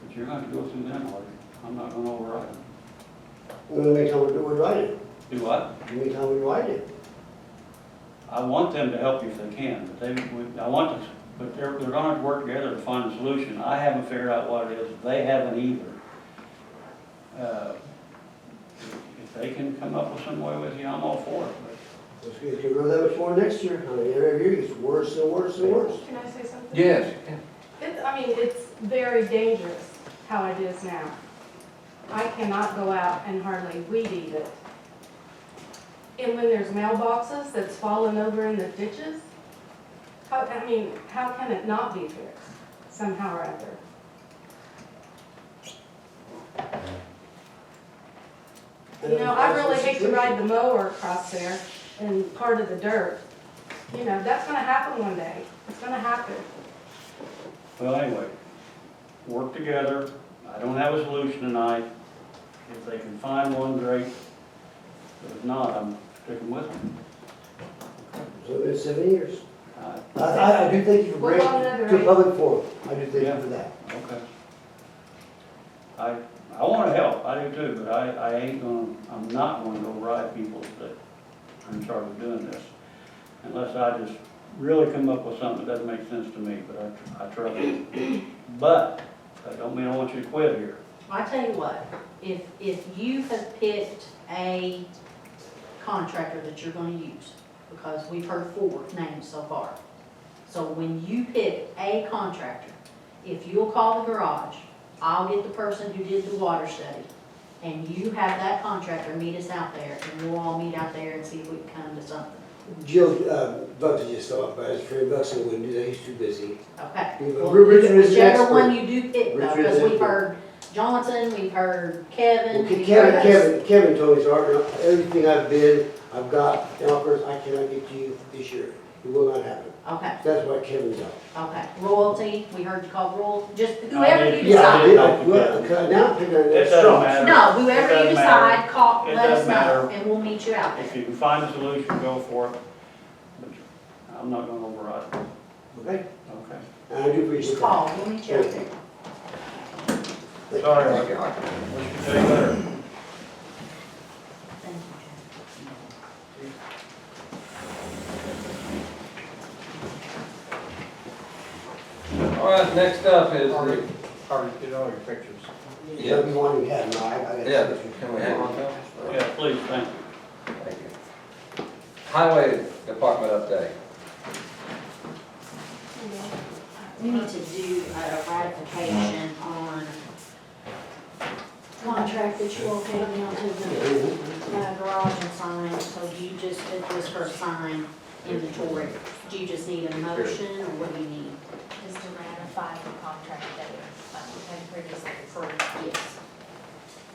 But you're gonna go through them, or I'm not gonna override them. Well, next time we do, we write it, Do what? next time we write it. I want them to help you if they can, but they, we- I want to, but they're, they're gonna have to work together to find a solution. I haven't figured out what it is, they haven't either. Uh, If they can come up with some way with you, I'm all for it, but Let's get, get rid of that much more next year, I mean, every year gets worse and worse and worse. Can I say something? Yes, you can. It, I mean, it's very dangerous how it is now. I cannot go out and hardly weed eat it. And when there's mailboxes that's fallen over in the ditches, how, I mean, how can it not be fixed somehow or other? You know, I really hate to ride the mower across there and part of the dirt. You know, that's gonna happen one day. It's gonna happen. Well, anyway, work together. I don't have a solution tonight. If they can find one, great. But if not, I'm sticking with them. So it's seven years. Uh, I, I, I do thank you for We're bringing on another it to eight. public forum, I do thank Yeah. you for that. Okay. I, I wanna help, I do too, but I, I ain't gonna, I'm not gonna go ride people that are in charge of doing this. Unless I just really come up with something that doesn't make sense to me, but I, I trust you. But, I don't mean I want you to quit here. I tell you what, if, if you have picked a contractor that you're gonna use, because we've heard four names so far. So when you pick a contractor, if you'll call the garage, I'll get the person who did the water study, and you have that contractor meet us out there, and we'll all meet out there and see if we can come to something, Jill, uh, Bucks just stopped by, it's Fred Bucks, and we do that, he's too busy. okay? Yeah, but Well, Richard is an Whichever expert. one you do pick, though, Richard is because an we've expert. heard Johnson, we've heard Well, Kevin. Ke- we've Kevin, heard- Kevin, Kevin told me, Art, everything I've bid, I've got, offers, I cannot get to you this year, it will not happen. Okay. That's why Kevin's out. Okay, royalty, we heard you call royal, just I whoever did. you Yeah, I decide. did, I, well, because now I'm picking up It that doesn't straw. matter. No, It whoever you doesn't matter. decide, call, It let us doesn't matter. know, and we'll meet you out If there. you can find a solution, go for it. But I'm not gonna override it. Okay, Okay. and I do appreciate Just that. call, we'll meet you out there. Thank you. Sorry. Thank you, Art. Wish you could do better. Thank you, Jeff. All right, next up is, Harvey, the- Harvey, get all your pictures. You got me one you had, no, I, I got. yeah, can we have one now? Yeah, please, thank you. Thank you. Highway Department update. we need to do a ratification on contract that you all gave me on to the uh, garage and sign, so you just did this for a sign inventory. Do you just need a motion, or what do you need? is to ratify the contract that we had previously approved. Yes.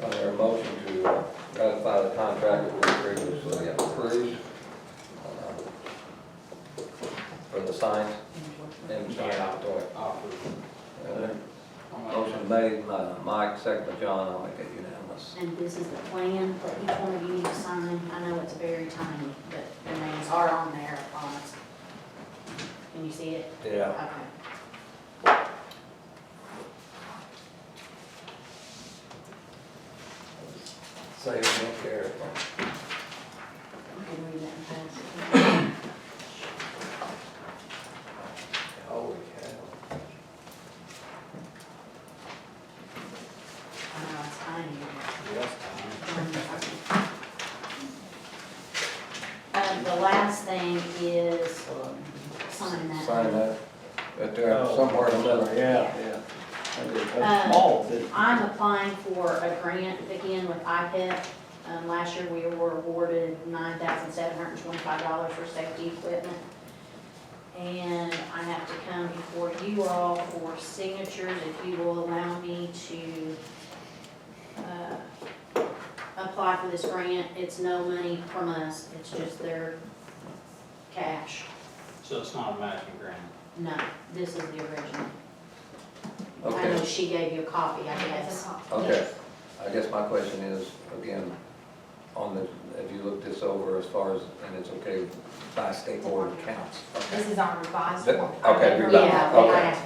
Is there a motion to uh, ratify the contract that we previously approved? uh, For the signs, inventory. Offer. Uh, Motion made by Mike, second by John, I'll make it unanimous. And this is the plan for each one of you to sign. I know it's very tiny, but the names are on there, I promise. Can you see it? Yeah. Okay. Save no care. You can read that and pass it. Holy cow. I know Uh, it's tiny. Yes, Tom. Um, the last thing is sign that. Sign that, that there, somewhere in the middle. Oh. Yeah, yeah. That is- That's Um, small, but I'm applying for a grant again with IPEP. Um, last year we were awarded nine thousand seven hundred and twenty-five dollars for safety equipment. And I have to come before you all for signatures, if you will allow me to, uh, apply for this grant. It's no money from us, it's just their cash. So it's not a matching grant? No, this is the original. I know Okay, she gave you a copy, I guess. okay. I guess my question is, again, on the, if you look this over as far as, and it's okay by state board counts. This is our revised. Th- one. okay, Remember revised. that? Yeah, I asked